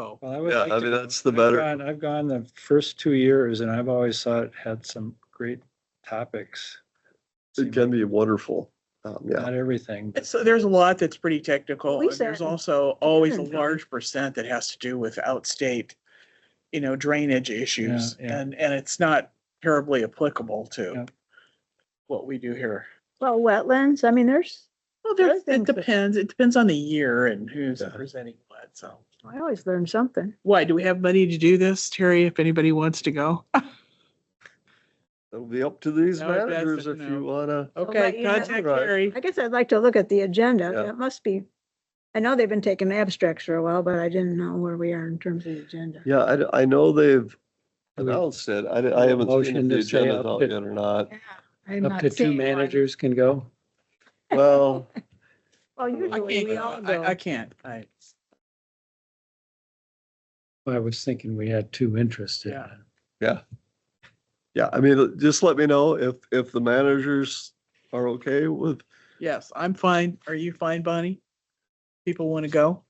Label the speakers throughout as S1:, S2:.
S1: so.
S2: Well, I would
S3: Yeah,
S2: like
S3: I
S2: to
S3: mean,
S2: go.
S3: that's the
S2: I've
S3: better.
S2: gone- I've gone the first two years and I've always thought it had some great topics.
S3: It can be wonderful. Um, yeah.
S2: Not everything, but
S1: So there's a lot that's pretty technical.
S4: We
S1: and There's
S4: said-
S1: also always a
S4: Karen,
S1: large percent that has to do with outstate, you know, drainage issues.
S2: Yeah, yeah.
S1: And, and it's not terribly applicable
S2: Yeah.
S1: to what we do here.
S4: Well, wetlands, I mean, there's,
S1: Well,
S4: there-
S1: there's, it
S4: things that-
S1: depends. It depends on the year and who's
S3: Yeah.
S1: presenting what, so.
S4: I always learn something.
S1: Why, do we have money to do this, Terry, if anybody wants to go?
S3: It'll be up to these
S1: No, that's a
S3: managers if you
S1: no.
S3: wanna,
S4: let
S1: Okay,
S4: you know.
S1: contact
S3: Right.
S1: Terry.
S4: I guess I'd like to look at the agenda.
S3: Yeah.
S4: It must be, I know they've been taking abstracts for a while, but I didn't know where we are in terms of the agenda.
S3: yeah, I, d- I know they've
S2: Do we-
S3: announced it. I, d- I haven't seen if
S2: Motion
S3: the
S2: to say
S3: agenda's
S2: up
S3: out
S2: to-
S3: yet or not.
S4: I'm
S2: up
S4: not
S2: to two
S4: seeing one.
S2: managers can go.
S3: Well,
S4: Well,
S1: I
S4: usually
S1: can't,
S4: we
S1: go.
S4: all
S1: I, I
S4: go.
S1: can't. I,
S2: I was thinking we had two interested.
S1: Yeah.
S3: yeah, I mean, just let me know if, if the managers are okay with,
S1: yes, I'm fine. Are you fine, Bonnie? People want to go?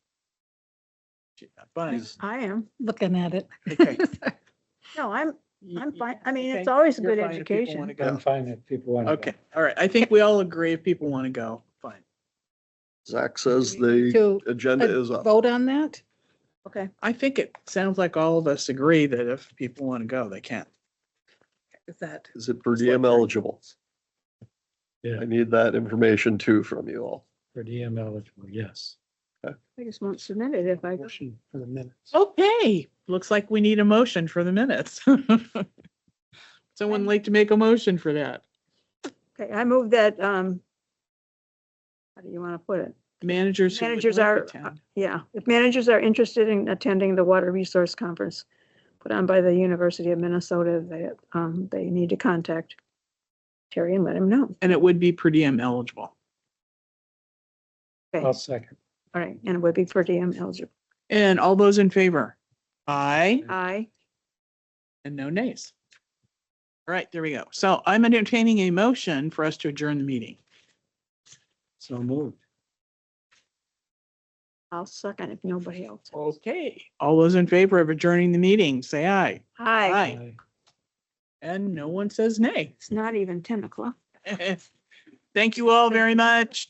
S1: Yeah, Bonnie.
S4: I am.
S5: looking at it.
S1: Okay.
S4: No, I'm, I'm fine. I mean, it's
S1: Okay.
S4: always a
S1: You're
S4: good
S1: fine if people wanna
S4: education.
S1: go.
S2: I'm fine if people want to.
S1: Okay, all right. I think we all agree if people want to go, fine.
S3: Zach says the
S5: To
S3: agenda is up.
S5: vote on that?
S4: Okay.
S1: I think it sounds like all of us agree that if people want to go, they can.
S5: Is that,
S3: Is it per diem eligible?
S2: Yeah.
S3: I need that information too from you all.
S2: For DM eligible, yes.
S4: I just won't submit it if I go.
S2: Motion for the minutes.
S1: Okay, looks like we need a motion for the minutes. Someone like to make a motion for that.
S4: Okay, I move that, um, how do you want to put it?
S1: Managers. who would
S4: Managers
S1: like
S4: are,
S1: to attend.
S4: yeah, if managers are interested in attending the Water Resource Conference put on by the University of Minnesota, they, um, they need to contact Terry and let him know.
S1: And it would be per diem eligible.
S4: Okay,
S2: I'll
S4: all
S2: second.
S4: right, and it would be per diem eligible.
S1: And all those in favor? Aye,
S4: Aye,
S1: and no nays. All right, there we go. So I'm entertaining a motion for us to adjourn the meeting.
S2: So moved.
S4: I'll second if nobody else.
S1: Okay, all those in favor of adjourning the meeting, say aye.
S4: Aye,
S1: Aye. And no one says nay.
S4: it's not even ten o'clock.
S1: Thank you all very much.